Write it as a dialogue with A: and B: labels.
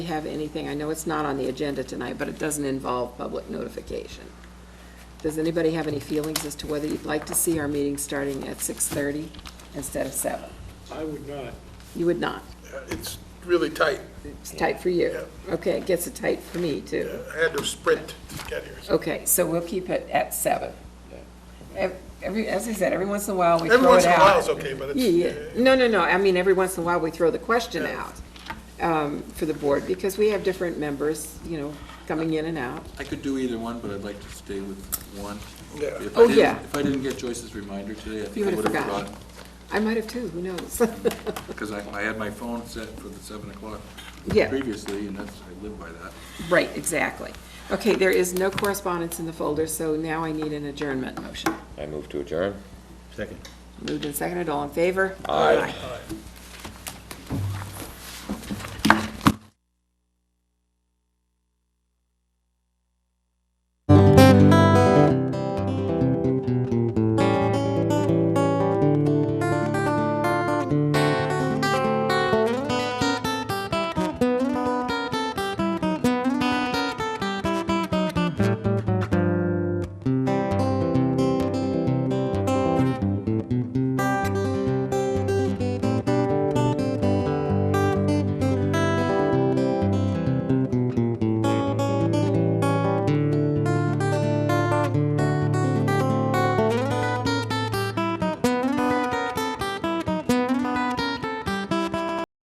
A: have anything, I know it's not on the agenda tonight, but it doesn't involve public notification. Does anybody have any feelings as to whether you'd like to see our meeting starting at 6:30 instead of 7?
B: I would not.
A: You would not.
C: It's really tight.
A: It's tight for you. Okay, it gets it tight for me, too.
C: I had to sprint to get here.
A: Okay, so we'll keep it at 7. Ev- Every, as I said, every once in a while, we throw it out.
C: Every once in a while is okay, but
A: Yeah, yeah.
C: it's,
A: No, no, no. I mean, every once in a while, we throw the question out um, for the board because we have different members, you know, coming in and out.
D: I could do either one, but I'd like to stay with one.
C: Yeah.
D: If I
A: Oh,
D: didn't-
A: yeah.
D: If I didn't get Joyce's reminder today, I
A: You
D: think I
A: would have
D: would have
A: forgotten.
D: forgotten,
A: I might have too, who knows?
D: because I, I had my phone set for the seven o'clock
A: Yeah.
D: previously, and that's, I live by that.
A: Right, exactly. Okay, there is no correspondence in the folder, so now I need an adjournment motion.
E: I move to adjourn.
A: Moved and seconded, all in favor? Aye.